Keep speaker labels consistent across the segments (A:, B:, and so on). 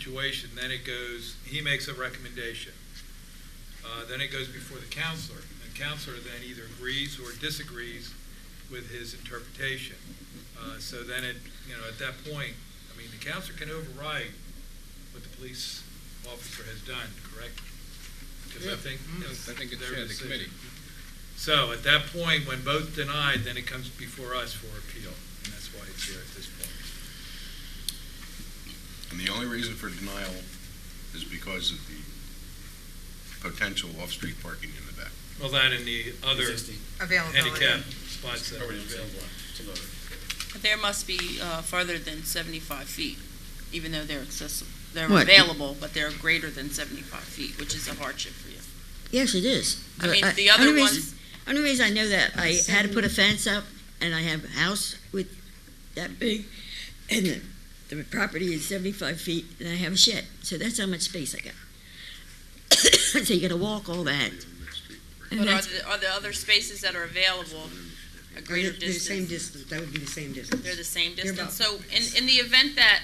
A: situation, then it goes, he makes a recommendation. Uh, Then it goes before the counselor. and The counselor then either agrees or disagrees with his interpretation. Uh, So then it, you know, at that point, I mean, the counselor can override what the police officer has done, correct? Because
B: Yeah,
A: I think.
B: mm, I think it's,
A: their
B: yeah, the committee.
A: decision. So at that point, when both denied, then it comes before us for appeal. And that's why it's here at this point.
C: And the only reason for denial is because of the potential off-street parking in the back.
A: Well, that and the other
D: Existing.
A: handicap
E: Availability.
A: spots that are
D: Already on the same
A: available.
D: block. It's another.
F: But There must be uh, further than 75 feet, even though they're accessible, they're
E: What?
F: available, but they're greater than 75 feet, which is a hardship for you.
E: Yes, it is.
F: I
E: But
F: mean, the other
E: only
F: ones,
E: reason- Only reason I know that, I had to put a fence up, and I have a house with that big, and the, the property is seventy-five feet, and I have a shed, so that's how much space I got. So you gotta walk all that.
F: but
E: And
F: are
E: that's-
F: the, are the other spaces that are available a greater
G: They're the same
F: distance?
G: distance, that would be the same distance.
F: They're the same
G: They're
F: distance? So
G: about-
F: in, in the event that,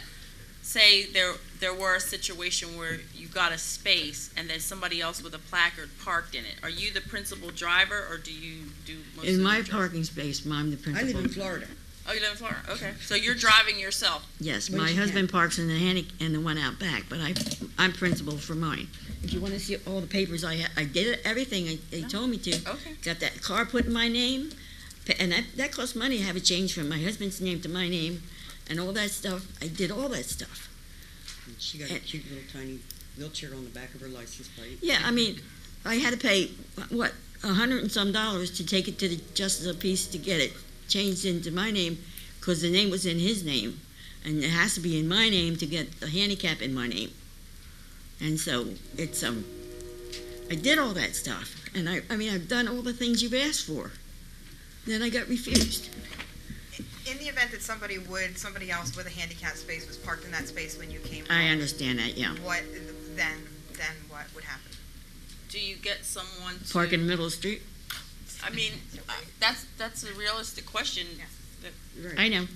F: say, there, there were a situation where you got a space and then somebody else with a placard parked in it, are you the principal driver or do you do most of
E: In
F: the
E: my
F: dri-
E: parking space, I'm the
G: I live
E: principal.
G: in Florida.
F: Oh, you live in Florida, okay. So you're driving yourself?
E: Yes,
G: Where'd
E: my
G: you
E: husband parks in the handic, and the one out back, but I, I'm principal for mine. If you wanna see all the papers I had, I did everything I- they told me to.
F: Okay.
E: Got that car put in my name, pa- and that, that cost money to have it changed from my husband's name to my name, and all that stuff. I did all that stuff.
G: And She got a cute little tiny wheelchair on the back of her license plate.
E: Yeah, I mean, I had to pay, what, a hundred and some dollars to take it to the Justice of Peace to get it changed into my name, because the name was in his name, and it has to be in my name to get the handicap in my name. And so, it's, um, I did all that stuff, and I, I mean, I've done all the things you've asked for. Then I got refused.
H: In the event that somebody would, somebody else with a handicap space was parked in that space when you came.
E: I
H: home,
E: understand that, yeah.
H: What, then, then what would happen?
F: Do you get someone to?
E: Park in the middle of the street?
F: I mean, I- that's, that's a realistic question.
H: Yeah.
E: I know.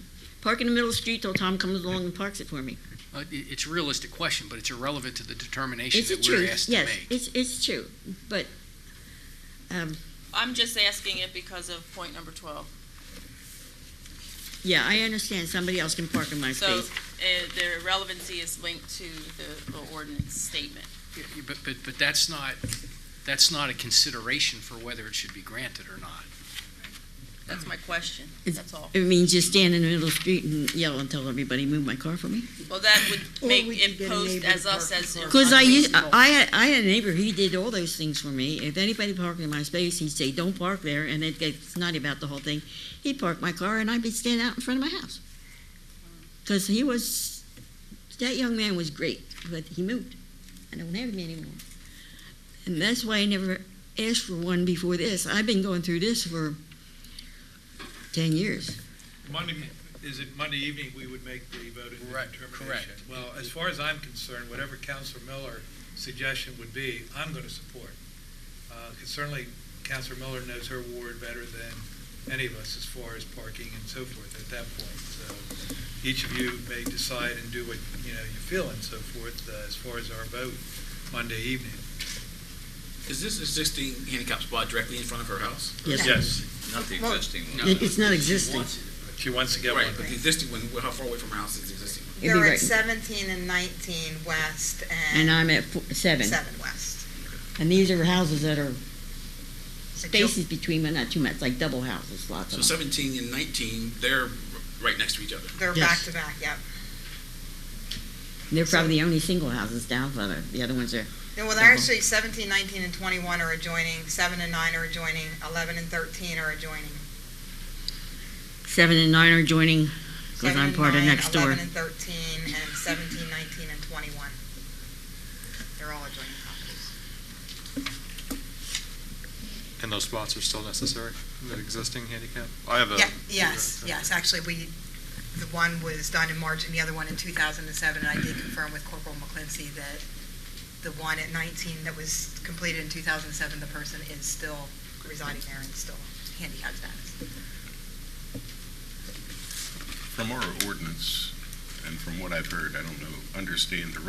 E: Park in the middle of the street till Tom comes along and parks it for me.
I: Uh, i- It's a realistic question, but it's irrelevant to the determination
E: It's the
I: that we're
E: truth,
I: asked to
E: yes,
I: make.
E: it's, it's true, but, um,
F: I'm just asking it because of point number twelve.
E: yeah, I understand somebody else can park in my
F: So, uh,
E: space.
F: the relevancy is linked to the, the ordinance statement.
I: Y- y- But, but, but that's not, that's not a consideration for whether it should be granted or not.
F: That's my question,
E: It's-
F: that's all.
E: It means just stand in the middle of the street and yell and tell everybody, move my car for me.
F: Well, that would
G: Or
F: make
G: we could
F: it
G: get a
F: post
G: neighbor
F: as
G: to
F: us
G: park
F: as.
G: the car.
E: Cause I used,
F: unreasonable.
E: I had, I had a neighbor, he did all those things for me. If anybody parked in my space, he'd say, don't park there, and they'd get snotty about the whole thing. He'd park my car and I'd be standing out in front of my house. Cause he was, that young man was great, but he moved. I don't have him anymore. And that's why I never asked for one before this. I've been going through this for ten years.
A: Monday, is it Monday evening we would make the voting
I: Right,
A: determination?
I: correct.
A: Well, as far as I'm concerned, whatever Counselor Miller suggestion would be, I'm going to support. Uh, 'cause Certainly, Counselor Miller knows her ward better than any of us as far as parking and so forth at that point. So each of you may decide and do what, you know, you feel and so forth uh, as far as our vote Monday evening.
D: Is this existing handicap spot directly in front of her house?
A: Yes,
J: Not the existing one.
E: It- It's not existing.
A: she wants to get one.
D: Right, but the existing one, how far away from her house is the existing one?
E: It'd be
H: You're at
E: right.
H: seventeen and nineteen west
E: And
H: and
E: I'm at four, seven.
H: seven west.
E: And these are houses that are
H: So you'll-
E: spaces between, but not too much, like double houses, lots
D: So
E: of them.
D: seventeen and nineteen, they're r- right next to each other.
H: They're
E: Yes.
H: back to back, yep.
E: They're probably the only single houses down further. The other ones are,
H: Yeah, Well, they're actually seventeen, nineteen, and twenty-one are adjoining, seven and nine are adjoining, eleven and thirteen are adjoining.
E: seven and nine are joining, because
H: Seven
E: I'm
H: and
E: part of
H: nine,
E: next door.
H: Eleven and thirteen, and seventeen, nineteen, and twenty-one. They're all adjoining properties.
K: And those spots are still necessary, the existing handicap? I have a.
H: Yeah, yes, yes, actually, we, the one was done in March and the other one in 2007, and I did confirm with Corporal McClincy that the one at 19 that was completed in 2007, the person is still residing there and still handicapped status.
C: From our ordinance, and from what I've heard, I don't know, understand the